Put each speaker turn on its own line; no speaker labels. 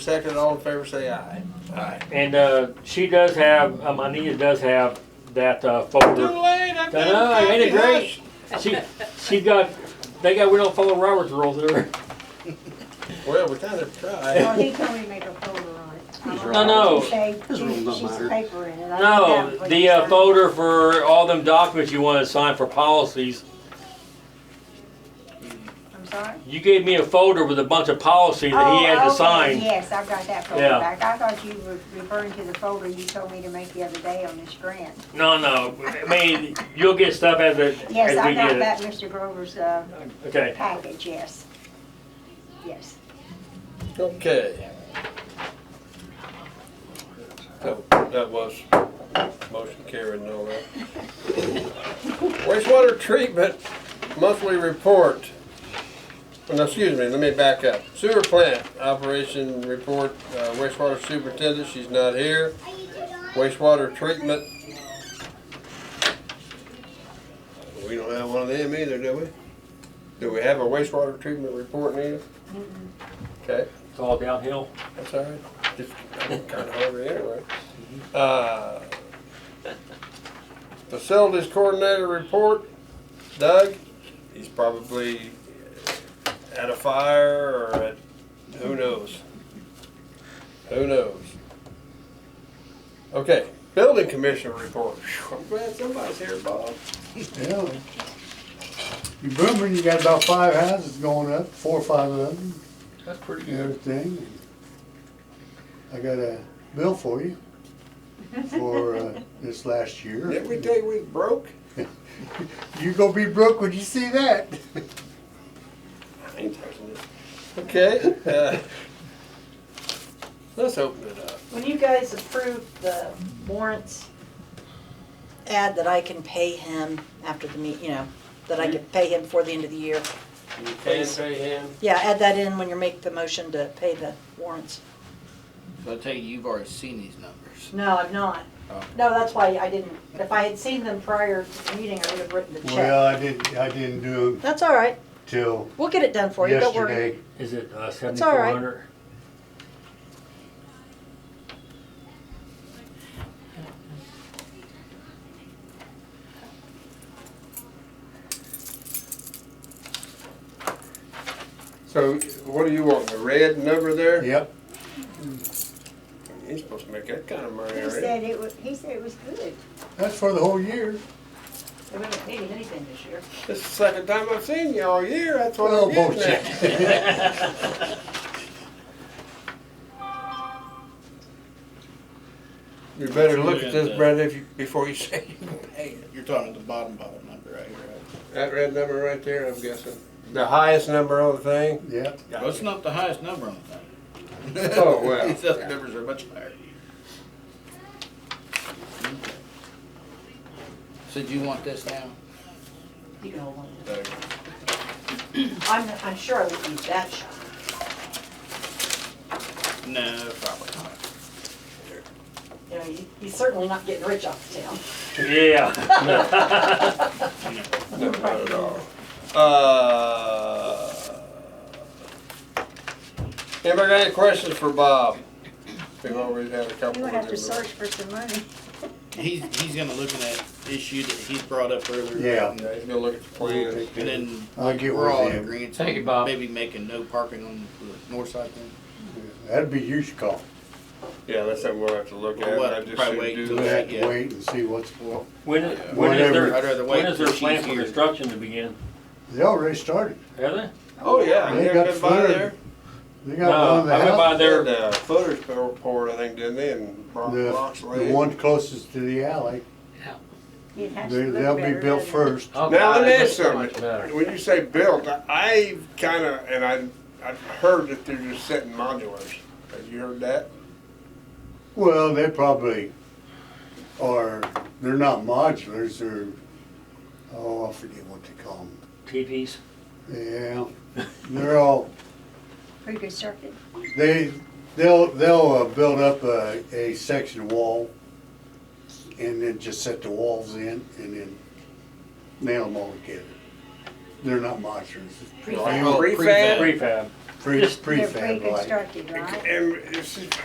Second, all in favor, say aye. Aye.
And uh, she does have, um, Anita does have that uh,
Too
folder.
late, I've got
No,
a
ain't it
copy,
great?
hush.
She, she got, they got, we don't follow Robert's rules there.
Well, we kind of
Well,
tried.
he told me to make a folder on it. I don't
No,
know
no.
if they-
His rule don't
Sheets
matter.
of paper in it. I don't
No,
have what
the
you
uh,
signed.
folder for all them documents you wanna sign for policies.
I'm sorry?
You gave me a folder with a bunch of policies that he
Oh,
had to
okay,
sign.
Yes, I've got that folder
Yeah.
back. I thought you were referring to the folder you told me to make the other day on this grant.
No, no, I mean, you'll get stuff as it,
Yes,
as
I
we
got
get
that Mr. Grover's, uh,
it. Okay,
package, yes. Yes.
Okay. So, that was motion carried and all that. Wastewater treatment monthly report. No, excuse me, let me back up. Sewer plant operation report, uh, wastewater superintendent, she's not here. Wastewater treatment. We don't have one of them either, do we? Do we have a wastewater treatment report, Nina? Okay.
it's all downhill.
That's all right. Just, I'm kind of hungry anyway. Uh, Facilities coordinator report, Doug, he's probably at a fire or at, who knows? Who knows? Okay, building commissioner report. Phew, I'm glad somebody's here, Bob.
Yeah. You booming, you got about five houses going up, four or five of them,
That's pretty
and everything. I got a bill for you for uh, this last
Didn't we
year.
tell you we was broke?
You gonna be broke when you see that.
I ain't touching this. Okay, uh, let's open it up.
When you guys approve the warrants, add that I can pay him after the meet, you know, that I can pay him before the end of the year.
You can pay him.
Yeah, add that in when you make the motion to pay the warrants.
So I tell you, you've already seen these numbers.
No, I'm not.
Oh.
No, that's why I didn't, if I had seen them prior to the meeting, I would have written the
Well,
check.
I didn't, I didn't do them
That's all right,
till
we'll get it done for you, don't worry.
yesterday.
Is it uh,
all
seventy-four
right.
hundred?
So what do you want, the red number there?
Yep,
He's supposed to make that kind of money
He
already.
said it was, he said it was good.
that's for the whole year.
We haven't paid him anything this year.
This is the second time I've seen you all year, that's what
Oh,
Well,
I'm getting
bullshit.
at. You better look at this, Brenda, if you, before you say you can pay it.
You're talking at the bottom, bottom number right here. right?
That red number right there, I'm guessing. The highest number on the thing?
Yep,
Well, it's not the highest number on the thing.
Oh, well.
These other numbers are much higher. So do you want this now?
You can hold on.
Uh,
I'm, I'm sure I would use that shot.
No, probably not.
You know, you- he's certainly not getting rich off the town.
Yeah,
No, not at all. Uh, Anybody got any questions for Bob? We've already had a couple.
You would
of
have to
them.
search for some money.
He's, he's gonna look at that issue that he brought up earlier.
Yeah.
Yeah, he's gonna look at the plan.
And then
I'll get
we're all
with
in
him.
agreement.
Thank you, Bob.
Maybe making no parking on the north side then.
That'd be your call.
Yeah, that's something we'll have to look at.
We'll
I
have to
just shouldn't
probably wait
do
till
We'll
that.
have to wait and see what's,
when, when is
Whatever.
I'd
their,
rather wait
when is their
till she's
plan for
here.
construction to begin?
they already started.
Are they?
Oh, yeah.
They got flooded. They got one
No,
of the
I went
houses.
by
They had
there,
the footers pour- uh, poured, I think, didn't they, and rock-
The,
rocks
the
laid.
one closest to the alley,
You'd have to
they-
look
they'll be
better,
built
doesn't it?
first.
Now, let me ask
so much
something.
better.
When you say built, I- I kinda, and I, I've heard that they're just setting modulars. Have you heard that?
Well, they probably are, they're not modulars, they're, oh, I forget what they call them.
TPs.
Yeah, they're all,
Pre-constructed.
they, they'll, they'll uh, build up a, a section wall and then just set the walls in and then nail them all together. they're not modulars,
Prefab.
prefab.
pre,
Prefab.
pre-
Just-
They're
prefab like.
pre-constructed, right?
And it's-